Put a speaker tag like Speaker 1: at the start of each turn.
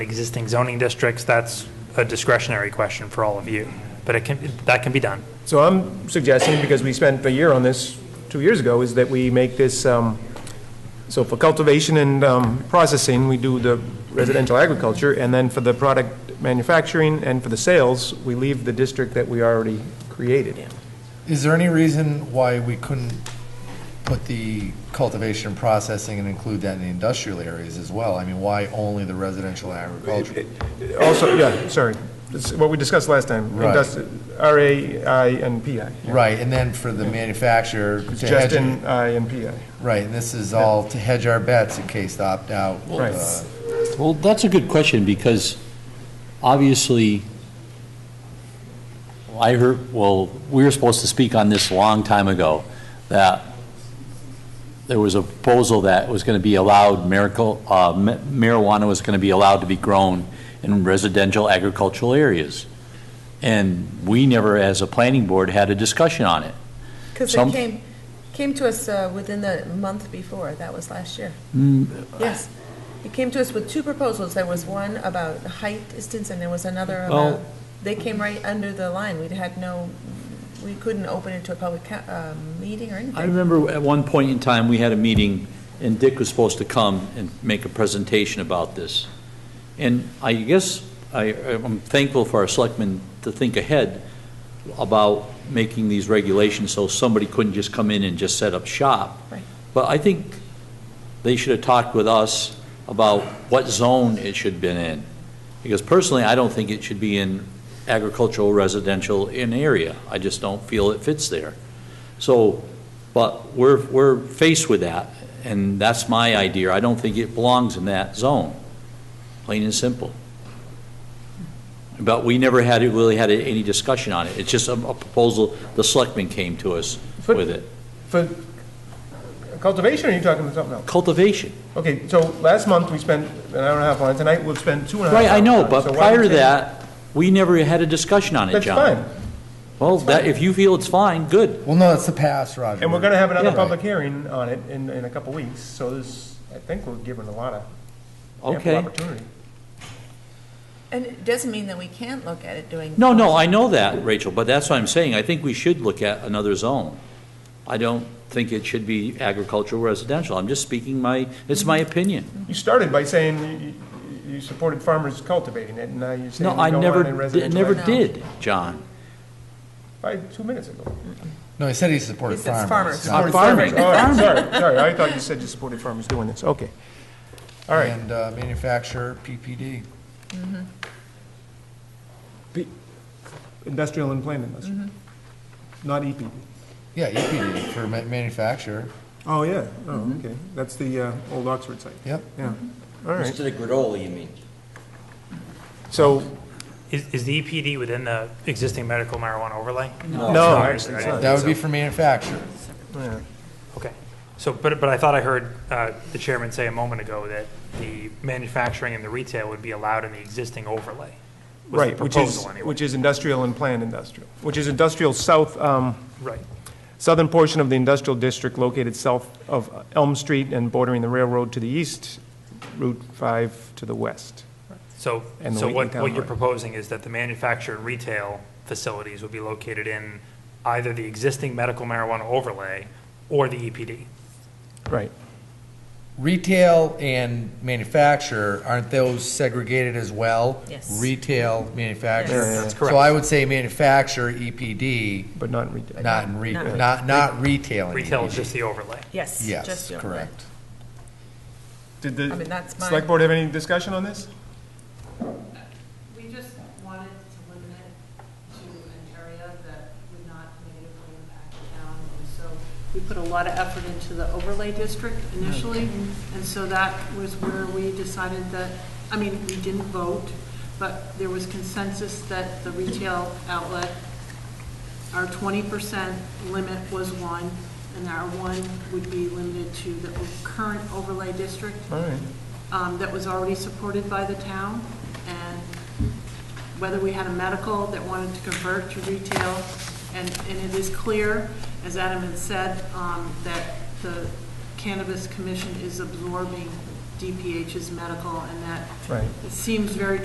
Speaker 1: existing zoning districts, that's a discretionary question for all of you, but it can, that can be done.
Speaker 2: So I'm suggesting, because we spent a year on this two years ago, is that we make this, um, so for cultivation and um, processing, we do the residential agriculture, and then for the product manufacturing and for the sales, we leave the district that we already created.
Speaker 3: Is there any reason why we couldn't put the cultivation and processing and include that in the industrial areas as well? I mean, why only the residential agriculture?
Speaker 2: Also, yeah, sorry, it's what we discussed last time.
Speaker 3: Right.
Speaker 2: Industri- RAI and PI.
Speaker 3: Right, and then for the manufacturer, to
Speaker 2: It's Just
Speaker 3: hedge-
Speaker 2: in I and PI.
Speaker 3: right, and this is all to hedge our bets in case the opt-out.
Speaker 2: Right.
Speaker 3: uh,
Speaker 4: Well, that's a good question, because obviously, I heard, well, we were supposed to speak on this a long time ago, that there was a proposal that was going to be allowed, miracle, uh, ma- marijuana was going to be allowed to be grown in residential agricultural areas. And we never, as a planning board, had a discussion on it.
Speaker 5: Because
Speaker 4: Some-
Speaker 5: it came, came to us uh, within the month before, that was last year. Yes. It came to us with two proposals. There was one about height distance, and there was
Speaker 4: Oh.
Speaker 5: another about,
Speaker 4: Well-
Speaker 5: they came right under the line. We'd had no, we couldn't open it to a public ca- uh, meeting or
Speaker 4: I
Speaker 5: anything.
Speaker 4: remember at one point in time, we had a meeting, and Dick was supposed to come and make a presentation about this. And I guess I, I'm thankful for our selectmen to think ahead about making these regulations so somebody couldn't just come in and just set up shop.
Speaker 5: Right.
Speaker 4: But I think they should have talked with us about what zone it should have been in. Because personally, I don't think it should be in agricultural, residential, in area. I just don't feel it fits there. So, but we're, we're faced with that, and that's my idea. I don't think it belongs in that zone, plain and simple. But we never had, really had any discussion on it. It's just a a proposal, the selectmen came to us
Speaker 2: But-
Speaker 4: with it.
Speaker 2: For cultivation, or are you talking about something else?
Speaker 4: Cultivation.
Speaker 2: Okay, so last month, we spent an hour and a half on it, tonight we'll spend two and a half.
Speaker 4: Right, I know,
Speaker 2: hours on it.
Speaker 4: but
Speaker 2: So why
Speaker 4: prior to
Speaker 2: don't you-
Speaker 4: that, we never had a discussion on it,
Speaker 2: That's
Speaker 4: John.
Speaker 2: fine,
Speaker 4: Well, that, if you feel it's fine, good.
Speaker 3: Well, no, it's the past, Roger.
Speaker 2: and we're gonna have another
Speaker 4: Yeah.
Speaker 2: public hearing on it in, in a couple weeks, so this, I think we're given a lot of ample
Speaker 4: Okay.
Speaker 2: opportunity.
Speaker 5: And it doesn't mean that we can't look at it doing.
Speaker 4: No, no, I know that, Rachel, but that's what I'm saying. I think we should look at another zone. I don't think it should be agricultural residential. I'm just speaking my, it's my opinion.
Speaker 2: You started by saying you- you, you supported farmers cultivating it, and now you're
Speaker 4: No,
Speaker 2: saying
Speaker 4: I
Speaker 2: you don't
Speaker 4: never,
Speaker 2: want it in
Speaker 4: di-
Speaker 2: residential.
Speaker 4: never
Speaker 5: No.
Speaker 4: did, John.
Speaker 2: Five, two minutes ago.
Speaker 3: No, he said he supported
Speaker 5: He says
Speaker 3: farmers.
Speaker 5: farmers.
Speaker 4: Uh,
Speaker 3: not-
Speaker 2: Supported farmers, all right, sorry, sorry, I thought you said you supported farmers doing this, okay. All right,
Speaker 3: And uh, manufacturer, PPD.
Speaker 2: industrial and plant
Speaker 4: Mm-hmm.
Speaker 2: industry, not E EPD.
Speaker 3: Yeah, EPD for ma- manufacturer.
Speaker 2: Oh, yeah,
Speaker 4: Mm-hmm.
Speaker 2: oh, okay, that's the, uh, old Oxford site.
Speaker 3: Yep.
Speaker 2: Yeah, all right,
Speaker 6: Instead of granola, you mean?
Speaker 2: so,
Speaker 1: Is, is the EPD within the existing medical marijuana overlay?
Speaker 2: no,
Speaker 1: it's
Speaker 2: actually,
Speaker 1: not.
Speaker 2: it's not.
Speaker 3: That would be for manufacturer.
Speaker 2: Yeah.
Speaker 1: Okay. So, but, but I thought I heard uh, the chairman say a moment ago that the manufacturing and the retail would be allowed in the existing overlay. was the
Speaker 2: Right, which is,
Speaker 1: proposal anyway.
Speaker 2: which is industrial and planned industrial, which is industrial south, um,
Speaker 1: Right.
Speaker 2: southern portion of the industrial district located south of Elm Street and bordering the railroad to the east, Route 5 to the west.
Speaker 1: So,
Speaker 2: And the
Speaker 1: so
Speaker 2: Wheaton
Speaker 1: what, what
Speaker 2: Town
Speaker 1: you're
Speaker 2: Line.
Speaker 1: proposing is that the manufacturer and retail facilities would be located in either the existing medical marijuana overlay or the E EPD.
Speaker 2: Right.
Speaker 3: Retail and manufacturer, aren't those segregated as well?
Speaker 5: Yes.
Speaker 3: Retail, manufacturer.
Speaker 5: Yes. Yeah, yeah, yeah.
Speaker 1: That's
Speaker 3: So
Speaker 1: correct.
Speaker 3: I would say manufacturer, EPD,
Speaker 2: But not in retail.
Speaker 3: not in re,
Speaker 5: Not-
Speaker 3: not, not retail and
Speaker 1: Retail is
Speaker 3: EPD.
Speaker 1: just the overlay.
Speaker 5: Yes. just
Speaker 3: Yes,
Speaker 5: the overlay.
Speaker 3: correct.
Speaker 2: Did
Speaker 5: I mean,
Speaker 2: the
Speaker 5: that's mine.
Speaker 2: select board have any discussion on this?
Speaker 7: We just wanted to limit it to an area that would not negatively impact the town. And so we put a lot of effort into the overlay district initially.
Speaker 2: Mm-hmm.
Speaker 7: And so that was where we decided that, I mean, we didn't vote, but there was consensus that the retail outlet, our twenty percent limit was one, and our one would be limited to the current overlay district
Speaker 2: All right.
Speaker 7: um, that was already supported by the town, and whether we had a medical that wanted to convert to retail, and, and it is clear, as Adam had said, um, that the Cannabis Commission is absorbing DPH is medical, and that
Speaker 2: Right.
Speaker 7: it seems very